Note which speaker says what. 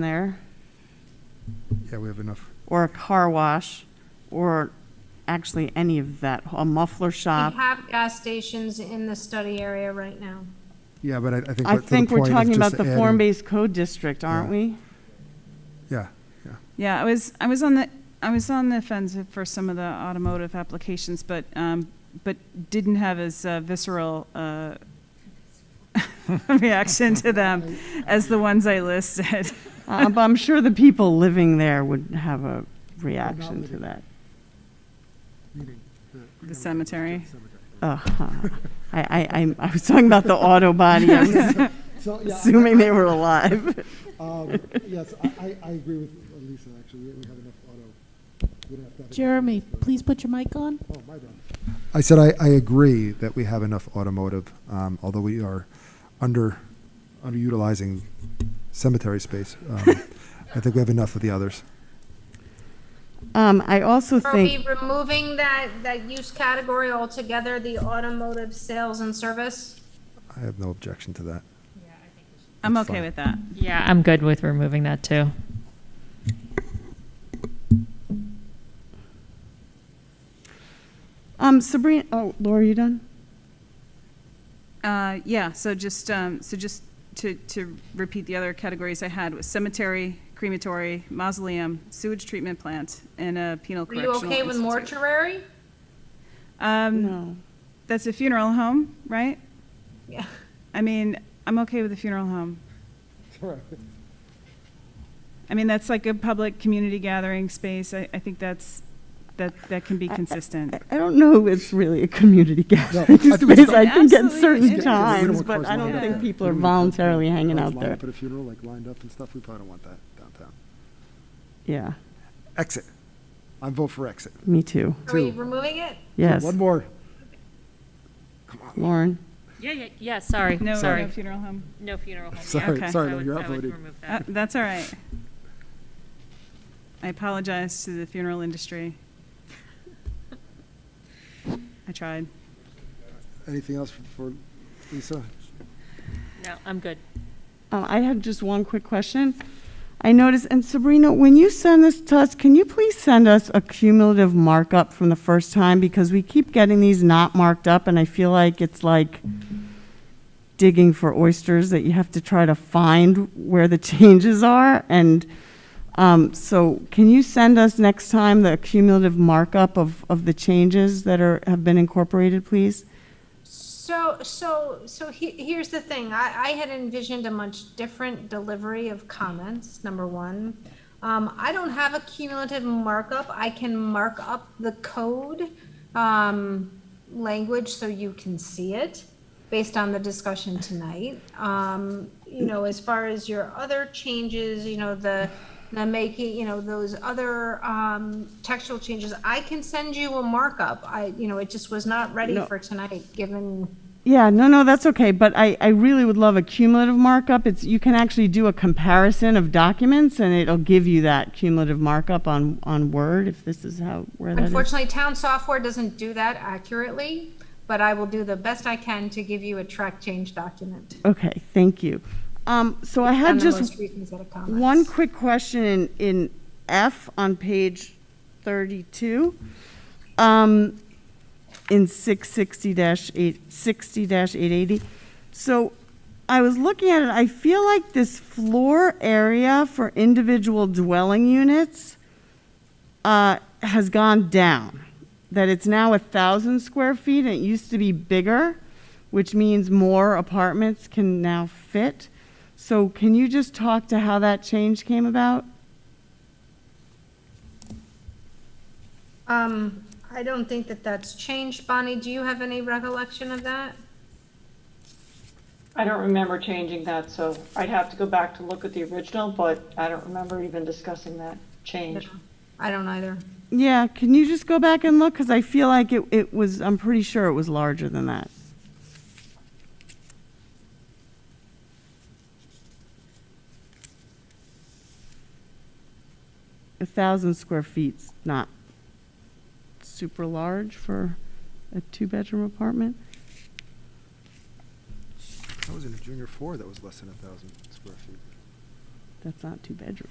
Speaker 1: there,
Speaker 2: Yeah, we have enough.
Speaker 1: or a car wash, or actually any of that, a muffler shop.
Speaker 3: We have gas stations in the study area right now.
Speaker 2: Yeah, but I, I think.
Speaker 1: I
Speaker 2: what- to the
Speaker 1: think we're
Speaker 2: point of
Speaker 1: talking
Speaker 2: just
Speaker 1: about the
Speaker 2: adding-
Speaker 1: form-based code district, aren't
Speaker 2: Yeah.
Speaker 1: we?
Speaker 2: Yeah, yeah.
Speaker 4: Yeah, I was, I was on the, I was on the fence for some of the automotive applications, but, um, but didn't have as uh, visceral, uh, reaction to them as the ones I listed.
Speaker 1: Uh, But I'm sure the people living there would have a reaction to that.
Speaker 4: The cemetery.
Speaker 1: Uh-huh. I, I, I'm- I was talking about the auto body, I was
Speaker 5: So, yeah,
Speaker 1: assuming they were alive.
Speaker 5: um, yes, I, I, I agree with Lisa, actually, we we have enough auto. We don't have to have it.
Speaker 6: Jeremy, please put your mic on.
Speaker 5: Oh, my bad.
Speaker 2: I said I, I agree that we have enough automotive, um, although we are under, underutilizing cemetery space. Um, I think we have enough of the others.
Speaker 1: Um, I also
Speaker 3: Are we
Speaker 1: think,
Speaker 3: removing that, that use category altogether, the automotive sales and service?
Speaker 2: I have no objection to that.
Speaker 4: I'm
Speaker 2: That's
Speaker 4: okay
Speaker 2: fine.
Speaker 4: with that.
Speaker 7: Yeah, I'm good with removing that too.
Speaker 1: um, Sabrina, oh, Laura, you done?
Speaker 4: Uh, yeah, so just, um, so just to, to repeat the other categories I had was cemetery, crematory, mausoleum, sewage treatment plant, and a penal
Speaker 3: Are you
Speaker 4: correctional
Speaker 3: okay with
Speaker 4: institute.
Speaker 3: mortuary?
Speaker 4: Um,
Speaker 1: No.
Speaker 4: that's a funeral home, right?
Speaker 3: Yeah.
Speaker 4: I mean, I'm okay with the funeral home. I mean, that's like a public community gathering space. I, I think that's, that, that can be consistent.
Speaker 1: I don't know if it's really a community
Speaker 5: I
Speaker 1: gathering
Speaker 5: think it's
Speaker 1: space. I think at
Speaker 4: Absolutely,
Speaker 1: certain
Speaker 5: Yeah, 'cause we don't
Speaker 4: it's-
Speaker 1: times,
Speaker 5: want
Speaker 1: but
Speaker 5: cars
Speaker 1: I
Speaker 5: lined
Speaker 1: don't
Speaker 5: up.
Speaker 1: think
Speaker 4: Yeah.
Speaker 1: people
Speaker 5: We
Speaker 1: are
Speaker 5: don't want
Speaker 1: voluntarily
Speaker 5: cars
Speaker 1: hanging out
Speaker 5: lined
Speaker 1: there.
Speaker 5: up At a funeral, like lined up and stuff, we probably don't want that downtown.
Speaker 1: Yeah,
Speaker 2: Exit. I vote for exit.
Speaker 1: me too.
Speaker 3: Are we
Speaker 5: Two.
Speaker 3: removing it?
Speaker 1: Yes,
Speaker 5: One more.
Speaker 1: Lauren.
Speaker 7: Yeah, yeah, yeah, sorry,
Speaker 4: No, no
Speaker 7: sorry.
Speaker 4: funeral home.
Speaker 7: No funeral home.
Speaker 5: Sorry,
Speaker 4: Okay.
Speaker 5: sorry, no, you're outvoted.
Speaker 4: Uh, That's all right. I apologize to the funeral industry. I tried.
Speaker 5: Anything else for- for Lisa?
Speaker 7: No, I'm good.
Speaker 1: Uh, I had just one quick question. I noticed, and Sabrina, when you send this to us, can you please send us a cumulative markup from the first time? Because we keep getting these not marked up, and I feel like it's like digging for oysters that you have to try to find where the changes are. And um, so, can you send us next time the cumulative markup of, of the changes that are have been incorporated, please?
Speaker 3: So, so, so he, here's the thing, I, I had envisioned a much different delivery of comments, number one. Um, I don't have a cumulative markup, I can mark up the code, um, language so you can see it based on the discussion tonight. Um, you know, as far as your other changes, you know, the, the making, you know, those other, um, textual changes, I can send you a markup. I, you know, it just was not ready
Speaker 1: No.
Speaker 3: for tonight, given,
Speaker 1: Yeah, no, no, that's okay, but I, I really would love a cumulative markup. It's, you can actually do a comparison of documents, and it'll give you that cumulative markup on, on Word, if this is how, where that is.
Speaker 3: unfortunately, town software doesn't do that accurately, but I will do the best I can to give you a track change document.
Speaker 1: Okay, thank you. Um, so I had
Speaker 3: And the
Speaker 1: just
Speaker 3: most recent set of comments.
Speaker 1: one quick question in, in F on page thirty-two. Um, in six sixty dash eight, sixty dash eight eighty. So I was looking at it, I feel like this floor area for individual dwelling units uh, has gone down, that it's now a thousand square feet, and it used to be bigger, which means more apartments can now fit. So can you just talk to how that change came about?
Speaker 3: Um, I don't think that that's changed. Bonnie, do you have any recollection of that?
Speaker 8: I don't remember changing that, so I'd have to go back to look at the original, but I don't remember even discussing that change.
Speaker 3: I don't either.
Speaker 1: Yeah, can you just go back and look, because I feel like it, it was, I'm pretty sure it was larger than that. A thousand square feet's not super large for a two-bedroom apartment.
Speaker 2: I was in a junior four that was less than a thousand square feet.
Speaker 1: That's not two bedrooms.